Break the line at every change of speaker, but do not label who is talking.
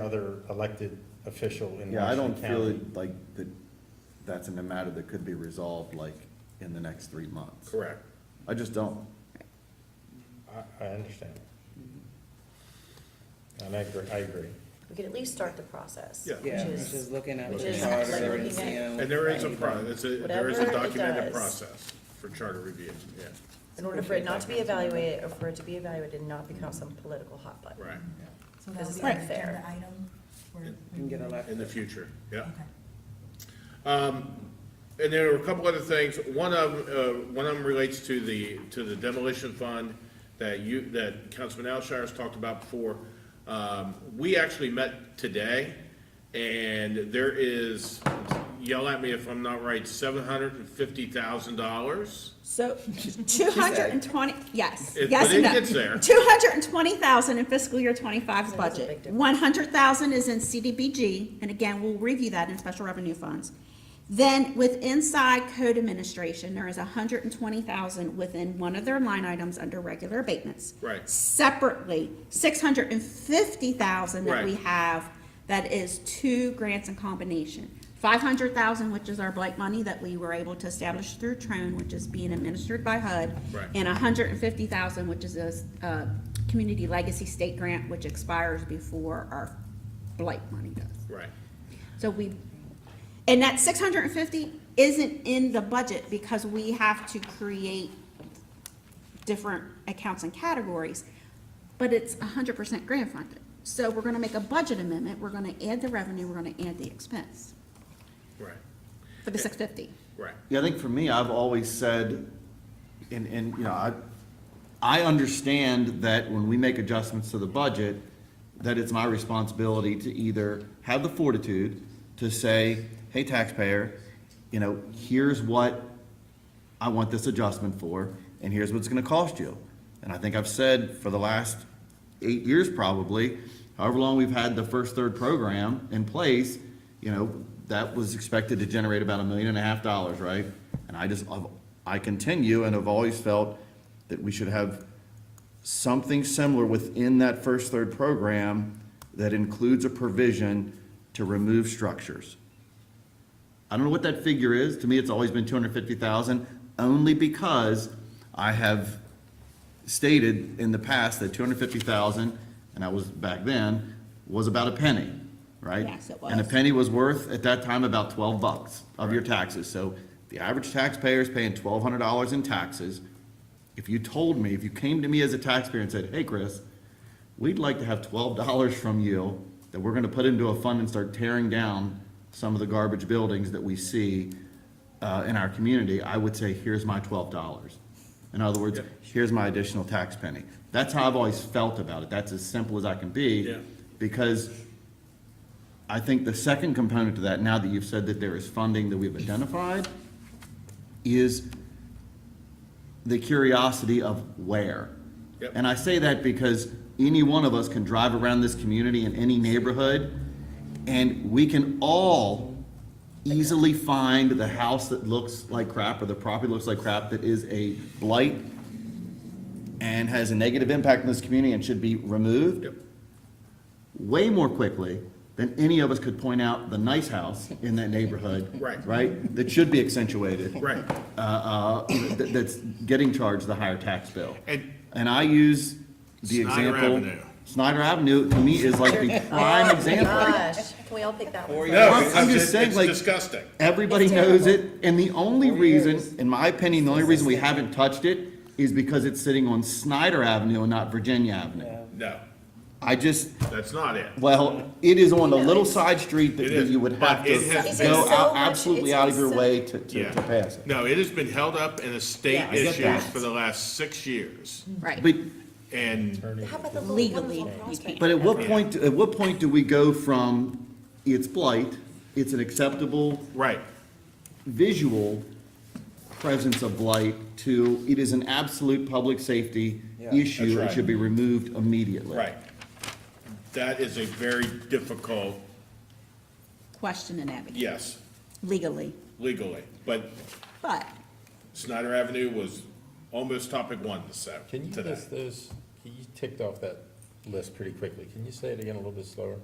other elected official in
Yeah, I
Washington
don't feel
County.
it like that, that's an matter that could be resolved like in the next three months.
Correct.
I just don't.
I, I understand. And I agree, I agree.
We could at least start the process.
Yeah.
Yeah,
Which
which is
is,
looking at
which
the
is like
charter
looking
and
at-
seeing.
And there is a
what
pro,
might
it's a, there is a
Whatever he
documented
does.
process for charter reviews, yeah,
in order for it not to be evaluated, or for it to be evaluated and not become some political hot button.
right,
So
This
that'll
is
be an
not fair.
agenda item? where-
be- And get
in
elected.
the future, yeah.
Okay.
And there were a couple other things, one of, them, uh, one of them relates to the, to the demolition fund that you, that Councilman Alshire has talked about before. Um, we actually met today, and there is, yell at me if I'm not right, seven hundred and fifty thousand dollars.
So, two hundred and twenty, yes,
It-
yes
but
and
it
no.
gets there.
Two hundred and twenty thousand in fiscal year 25's
So that's a big
budget.
difference.
One hundred thousand is in CDBG, and again, we'll review that in special revenue funds. Then with inside code administration, there is hundred and twenty thousand within one of their line items under regular abatements.
Right.
Separately, six hundred and fifty thousand that we
Right.
have, that is two grants in combination. Five hundred thousand, which is our Blake money that we were able to establish through Trone, which is being administered by HUD.
Right.
And hundred and fifty thousand, which is a, s- uh, community legacy state grant, which expires before our Blake money does.
Right,
So we, and that six hundred and fifty isn't in the budget because we have to create different accounts and categories, but it's hundred percent grant funded. So we're gonna make a budget amendment, we're gonna add the revenue, we're gonna add the expense
right,
for the six fifty.
right,
Yeah, I think for me, I've always said, and, and, you know, I, I understand that when we make adjustments to the budget, that it's my responsibility to either have the fortitude to say, hey taxpayer, you know, here's what I want this adjustment for, and here's what it's gonna cost you. And I think I've said for the last eight years probably, however long we've had the first third program in place, you know, that was expected to generate about a million and a half dollars, right? And I just, I've- I continue and have always felt that we should have something similar within that first third program that includes a provision to remove structures. I don't know what that figure is. To me, it's always been two hundred fifty thousand, only because I have stated in the past that two hundred fifty thousand, and I was back then, was about a penny, right?
Yes, it
And a
was.
penny was worth, at that time, about twelve bucks of your taxes. So the average taxpayer is paying twelve hundred dollars in taxes. If you told me, if you came to me as a taxpayer and said, hey, Chris, we'd like to have twelve dollars from you that we're gonna put into a fund and start tearing down some of the garbage buildings that we see, uh, in our community, I would say, here's my twelve dollars. In other words, here's my additional tax penny. That's how I've always felt about it. That's as simple as I can be.
Yeah.
Because I think the second component to that, now that you've said that there is funding that we've identified, is the curiosity of where.
Yep.
And I say that because any one of us can drive around this community in any neighborhood, and we can all easily find the house that looks like crap, or the property looks like crap, that is a blight and has a negative impact on this community and should be removed
yep,
way more quickly than any of us could point out the nice house in that neighborhood.
Right.
Right? That should be accentuated.
Right.
Uh, uh, that, that's getting charged the higher tax bill.
And-
And I use the
Snyder
example.
Avenue.
Snyder Avenue, to me, is like the prime example.
Gosh, can we all pick that one? first?
Or you-
no,
I'm
because
just
it-
saying,
it's
like-
disgusting,
Everybody
It's
knows
terrible.
it, and the only reason, in my opinion, the only reason we haven't touched it is because it's sitting on Snyder Avenue and not Virginia Avenue.
no,
I just,
that's not it.
Well, it is on a little side street that
It is,
you would have
but it
to
has
been-
go
It's been so
out,
much-
absolutely
it's
out
been
of your
so-
way to, to,
Yeah.
to pass it.
No, it has been held up in estate
Yeah, I get
issues
that.
for the last six years,
Right.
But,
and
How about the little
Legally,
wonderful
you
prospect?
can't.
but at what
Yeah.
point, at what point do we go from it's blight, it's an acceptable
right,
visual presence of blight to it is an absolute public safety issue
right.
and should be removed immediately?
right. That is a very difficult,
Question and advocate,
yes,
legally,
legally, but
but
Snyder Avenue was almost topic one this,
Can you
today.
list those, you ticked off that list pretty quickly. Can you say it again a little bit slower?